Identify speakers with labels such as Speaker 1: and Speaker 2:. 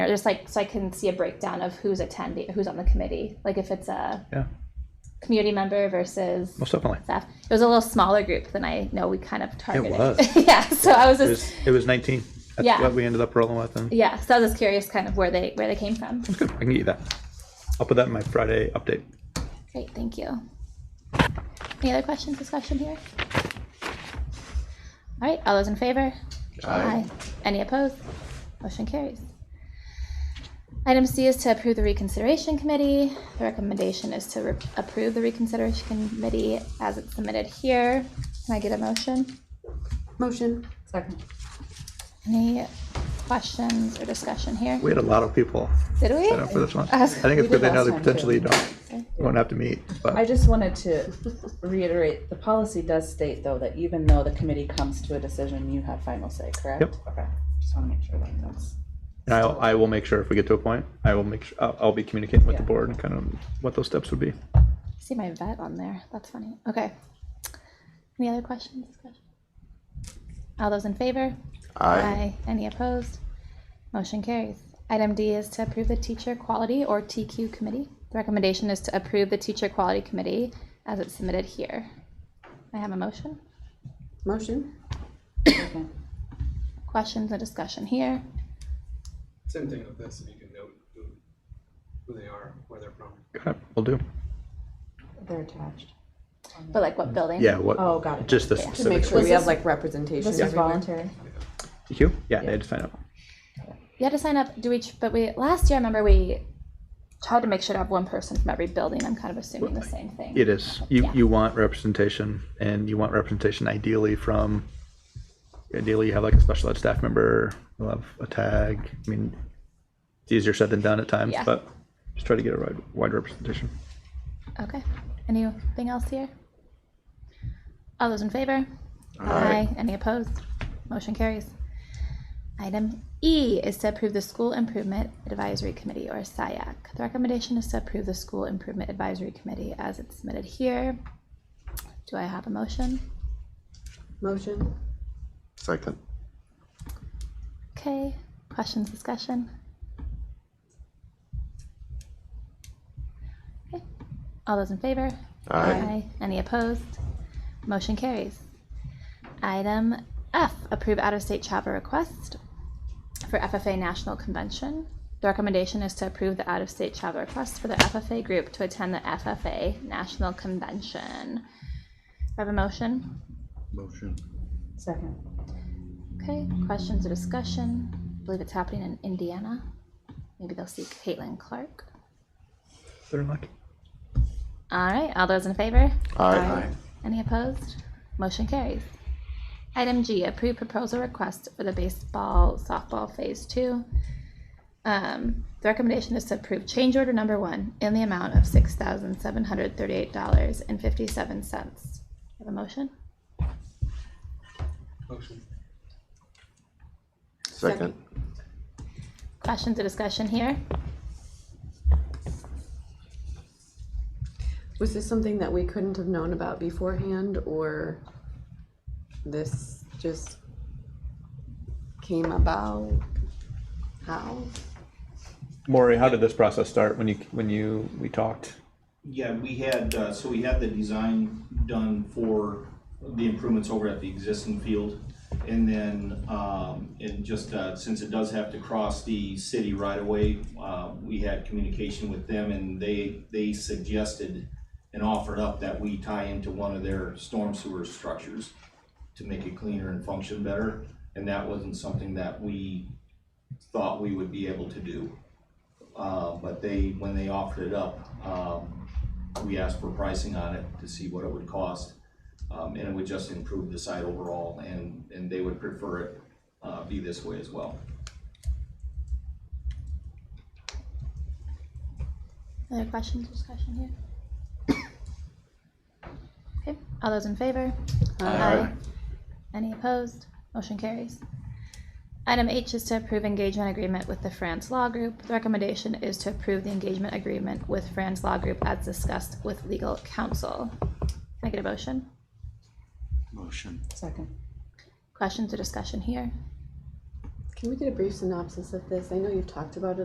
Speaker 1: Or just like so I can see a breakdown of who's attending, who's on the committee, like if it's a
Speaker 2: Yeah,
Speaker 1: community member versus
Speaker 2: most definitely.
Speaker 1: staff. It was a little smaller group than I know we kind of targeted.
Speaker 2: was.
Speaker 1: yeah, so I was
Speaker 2: It
Speaker 1: just
Speaker 2: was, it was 19. That's
Speaker 1: Yeah.
Speaker 2: what we ended up rolling with. And
Speaker 1: yeah, so I was just curious, kind of where they where they came from.
Speaker 2: it's good. I can get you that. I'll put that in my Friday update.
Speaker 1: Great, thank you. Any other questions, discussion here? All right, all those in favor? Aye. Any opposed? Motion carries. Item C is to approve the reconsideration committee. The recommendation is to re- approve the reconsideration committee as it's submitted here. Can I get a motion?
Speaker 3: Motion. Second.
Speaker 1: Any questions or discussion here?
Speaker 2: We had a lot of people
Speaker 1: Did
Speaker 2: set up for
Speaker 1: we?
Speaker 2: this one.
Speaker 1: Uh,
Speaker 2: I think it's
Speaker 3: we
Speaker 2: good
Speaker 3: did
Speaker 2: they know
Speaker 3: last
Speaker 2: they
Speaker 3: time,
Speaker 2: potentially
Speaker 3: too.
Speaker 2: don't, won't have to meet,
Speaker 4: I
Speaker 2: but
Speaker 4: just wanted to reiterate, the policy does state though that even though the committee comes to a decision, you have final say, correct?
Speaker 2: Yep.
Speaker 4: Okay, just want to make sure that that's.
Speaker 2: and I'll, I will make sure if we get to a point, I will make, su- I'll, I'll be communicating with the
Speaker 4: Yeah.
Speaker 2: board and kind of what those steps would be.
Speaker 1: See my vet on there. That's funny. Okay. Any other questions? discussion? All those in favor? Aye. Any opposed? Motion carries. Item D is to approve the teacher quality or TQ committee. The recommendation is to approve the teacher quality committee as it's submitted here. I have a motion.
Speaker 3: Motion.
Speaker 4: okay.
Speaker 1: Questions and discussion here.
Speaker 5: Same thing with this, if you can note who, who they are, where they're from.
Speaker 2: Okay, Will do.
Speaker 4: They're attached.
Speaker 1: But like what building?
Speaker 2: Yeah, what,
Speaker 4: Oh, got it.
Speaker 2: just the
Speaker 1: Yeah.
Speaker 3: To make
Speaker 2: specifics.
Speaker 3: sure
Speaker 4: Was
Speaker 3: we have
Speaker 4: this-
Speaker 3: like representation
Speaker 4: This is
Speaker 3: everywhere.
Speaker 4: voluntary.
Speaker 2: You? Yeah, they had to sign up.
Speaker 1: You had to sign up. Do we? But we last year, I remember we tried to make sure to have one person from every building. I'm kind of assuming the same thing.
Speaker 2: It is. You,
Speaker 1: Yeah.
Speaker 2: you want representation and you want representation ideally from, ideally you have like a special ed staff member, you'll have a tag. I mean, it's easier said than done at times,
Speaker 1: Yeah.
Speaker 2: but just try to get a wide, wide representation.
Speaker 1: Okay, anything else here? All those in favor? Aye. Any opposed? Motion carries. Item E is to approve the School Improvement Advisory Committee, or SIAC. The recommendation is to approve the School Improvement Advisory Committee as it's submitted here. Do I have a motion?
Speaker 3: Motion.
Speaker 6: Second.
Speaker 1: Okay, questions, discussion? Okay. All those in favor?
Speaker 6: Aye.
Speaker 1: Any opposed? Motion carries. Item F, approve out-of-state travel request for FFA National Convention. The recommendation is to approve the out-of-state travel request for the FFA group to attend the FFA National Convention. Do I have a motion?
Speaker 6: Motion.
Speaker 4: Second.
Speaker 1: Okay, questions or discussion? I believe it's happening in Indiana. Maybe they'll see Caitlin Clark.
Speaker 2: They're lucky.
Speaker 1: All right, all those in favor?
Speaker 6: Aye.
Speaker 1: Any opposed? Motion carries. Item G, approve proposal request for the baseball softball phase two. Um, the recommendation is to approve change order number one in the amount of six thousand seven hundred thirty-eight dollars and fifty-seven cents. Have a motion?
Speaker 5: Motion.
Speaker 6: Second.
Speaker 1: Questions or discussion here?
Speaker 3: Was this something that we couldn't have known about beforehand or this just came about? How?
Speaker 2: Maury, how did this process start when you, when you, we talked?
Speaker 7: Yeah, we had, uh, so we had the design done for the improvements over at the existing field. And then, um, and just, uh, since it does have to cross the city right away, uh, we had communication with them and they, they suggested and offered up that we tie into one of their storm sewer structures to make it cleaner and function better. And that wasn't something that we thought we would be able to do. Uh, but they, when they offered it up, um, we asked for pricing on it to see what it would cost. Um, and it would just improve the site overall and, and they would prefer it, uh, be this way as well.
Speaker 1: Other questions, or discussion here? Okay, all those in favor? Aye. Any opposed? Motion carries. Item H is to approve engagement agreement with the Franz Law Group. The recommendation is to approve the engagement agreement with Franz Law Group as discussed with legal counsel. Can I get a motion?
Speaker 6: Motion.
Speaker 4: Second.
Speaker 1: Questions or discussion here?
Speaker 3: Can we get a brief synopsis of this? I know you've talked about it